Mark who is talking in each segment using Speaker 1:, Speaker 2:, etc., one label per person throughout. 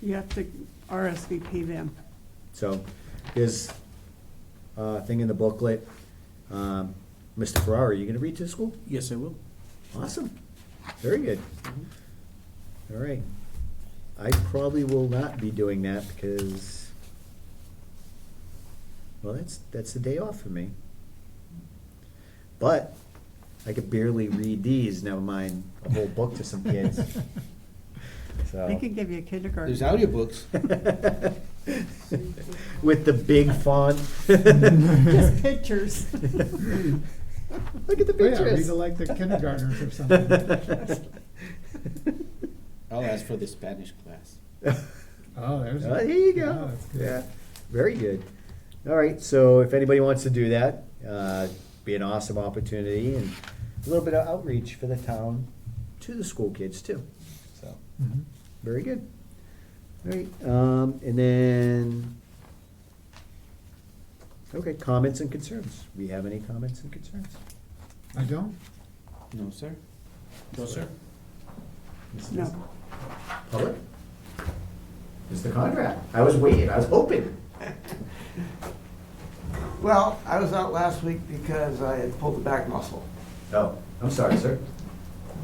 Speaker 1: You have to RSVP them.
Speaker 2: So there's a thing in the booklet. Um, Mr. Ferrari, you gonna read to the school?
Speaker 3: Yes, I will.
Speaker 2: Awesome. Very good. All right. I probably will not be doing that because, well, that's, that's the day off for me. But I could barely read these, never mind a whole book to some kids, so.
Speaker 1: They could give you a kindergarten.
Speaker 3: There's audiobooks.
Speaker 2: With the big font.
Speaker 1: Just pictures.
Speaker 2: Look at the
Speaker 4: Oh, yeah,
Speaker 2: pictures.
Speaker 4: read it like the kindergartners or something.
Speaker 3: I'll ask for the Spanish class.
Speaker 4: Oh, there's.
Speaker 2: Oh,
Speaker 4: a-
Speaker 2: there you
Speaker 4: yeah,
Speaker 2: go.
Speaker 4: that's good.
Speaker 2: Yeah, very good. All right, so if anybody wants to do that, uh, be an awesome opportunity and a little bit of outreach for the town to the school kids too. So,
Speaker 4: Mhm.
Speaker 2: very good. All right, um, and then, okay, comments and concerns. We have any comments and concerns?
Speaker 4: I don't?
Speaker 3: No, sir. No, sir.
Speaker 1: No.
Speaker 2: Public? Mr. Conrad, I was waiting, I was hoping.
Speaker 5: Well, I was out last week because I had pulled the back muscle.
Speaker 2: Oh, I'm sorry, sir.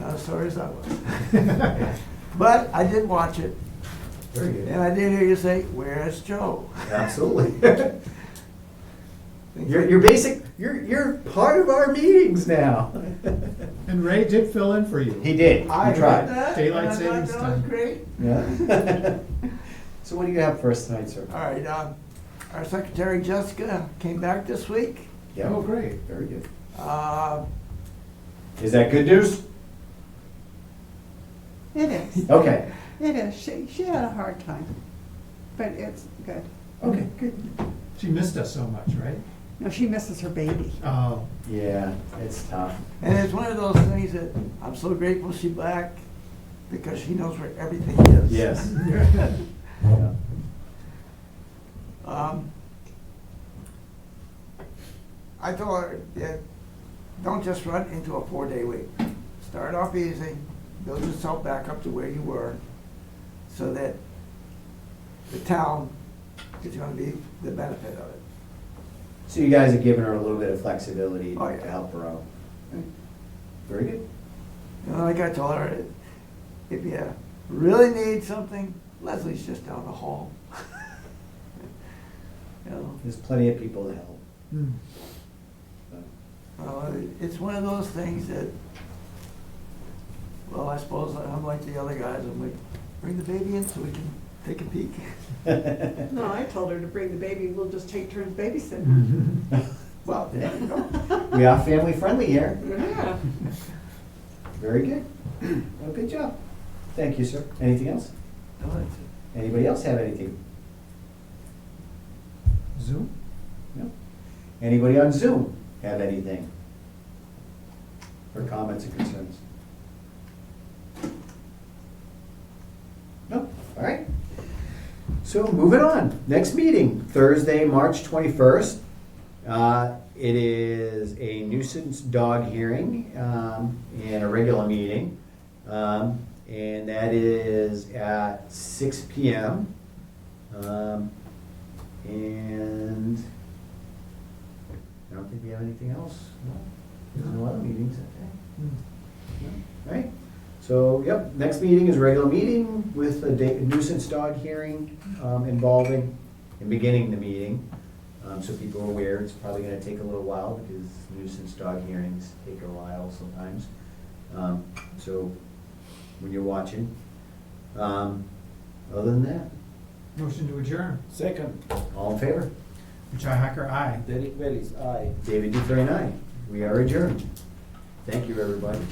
Speaker 5: Not as sorry as I was. But I did watch it,
Speaker 2: Very good.
Speaker 5: and I did hear you say, "Where's Joe?"
Speaker 2: Absolutely. You're, you're basic, you're, you're part of our meetings now.
Speaker 4: And Ray did fill in for you.
Speaker 2: He did, he
Speaker 5: I heard
Speaker 2: tried.
Speaker 5: that, and
Speaker 4: Daylight
Speaker 5: I thought
Speaker 4: savings
Speaker 5: that was
Speaker 4: time.
Speaker 5: great.
Speaker 2: Yeah. So what do you have for us tonight, sir?
Speaker 5: All right, um, our secretary Jessica came back this week.
Speaker 4: Oh, great.
Speaker 2: Very good.
Speaker 5: Uh,
Speaker 2: Is that good news?
Speaker 1: It is,
Speaker 3: Oh.
Speaker 2: Okay,
Speaker 1: it is. She, she had a hard time, but it's good.
Speaker 2: okay, good.
Speaker 4: She missed us so much, right?
Speaker 1: No, she misses her baby.
Speaker 4: Oh,
Speaker 2: Yeah, it's tough.
Speaker 5: And it's one of those things that I'm so grateful she's back because she knows where everything is.
Speaker 2: Yes. Yeah.
Speaker 5: Um, I told her, yeah, don't just run into a four-day week. Start off easy, build yourself back up to where you were, so that the town is gonna be the benefit of it.
Speaker 2: So you guys have given her a little bit of flexibility
Speaker 5: Oh, yeah.
Speaker 2: to help her out. Very good.
Speaker 5: You know, like I told her, if you really need something, Leslie's just down the hall. You know,
Speaker 2: There's plenty of people to help.
Speaker 4: hmm.
Speaker 2: so.
Speaker 5: Uh, It's one of those things that, well, I suppose I'm like the other guys, I'm like, bring the baby in so we can take a peek.
Speaker 1: No, I told her to bring the baby, we'll just take turns babysitting.
Speaker 4: Mhm.
Speaker 5: Well, there you go.
Speaker 2: We are family friendly here.
Speaker 1: Yeah.
Speaker 2: Very good. Well, good job. Thank you, sir. Anything else?
Speaker 5: No, that's it.
Speaker 2: Anybody else have anything?
Speaker 4: Zoom?
Speaker 2: No? Anybody on Zoom have anything? Or comments or concerns? No? All right. So moving on. Next meeting, Thursday, March twenty-first. Uh, It is a nuisance dog hearing um, and a regular meeting. Um, And that is at six P M. Um, And I don't think we have anything else. No. There's no other meetings that day.
Speaker 4: Hmm.
Speaker 2: No. Right? So, yep, next meeting is regular meeting with a da- nuisance dog hearing um, involving and beginning the meeting. Um, So people are aware, it's probably gonna take a little while because nuisance dog hearings take a while sometimes. Um, So, when you're watching. Um, Other than that,
Speaker 4: Motion to adjourn.
Speaker 3: Second,
Speaker 2: all in favor?
Speaker 4: Richi Hacker, aye.
Speaker 3: Derek Bellis, aye.
Speaker 2: David Dufresne, aye. We are adjourned. Thank you, everybody.